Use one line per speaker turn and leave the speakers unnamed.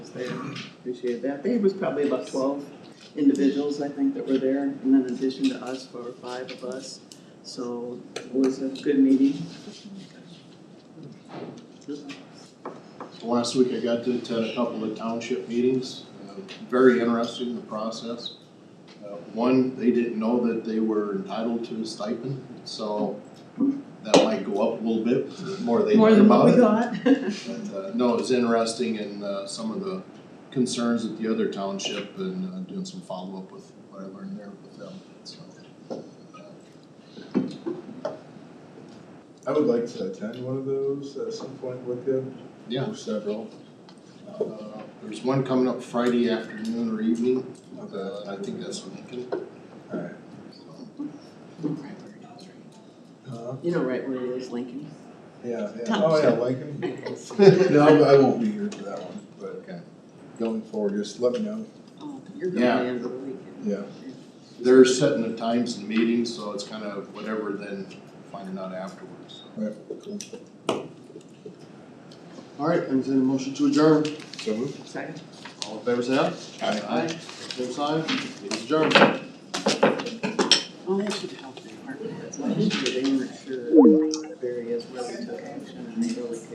I appreciate that. I think it was probably about twelve individuals, I think, that were there, and then in addition to us, four or five of us. So it was a good meeting.
Last week I got to attend a couple of township meetings, Uh, very interesting, the process. Uh, One, they didn't know that they were entitled to a stipend, so that might go up a little bit, the more they
More
learn
than what we
about it.
thought.
But, uh, No, it was interesting and uh, some of the concerns at the other township and uh, doing some follow-up with what I learned there with them, so.
I would like to attend one of those at some point with you.
Yeah.
Or several.
uh, There's one coming up Friday afternoon or evening, uh, I think that's Lincoln.
Alright.
So,
Huh?
You know right where it is, Lincoln.
uh, Yeah, yeah.
Tom,
Oh, yeah,
sure.
Lincoln.
Oh,
No, I won't be here for that one, but
Okay.
going forward, just let me know.
You're going
Yeah.
in the weekend.
Yeah.
They're setting the times and meetings, so it's kind of whatever then finding out afterwards.
Right, cool.
All right, entertain a motion to adjourn.
So moved.
Second.
All in favor, say aye.
Aye.
Same sign, meeting's adjourned.
Oh, that should help the department heads. I think they weren't sure if there is where we took action and they didn't.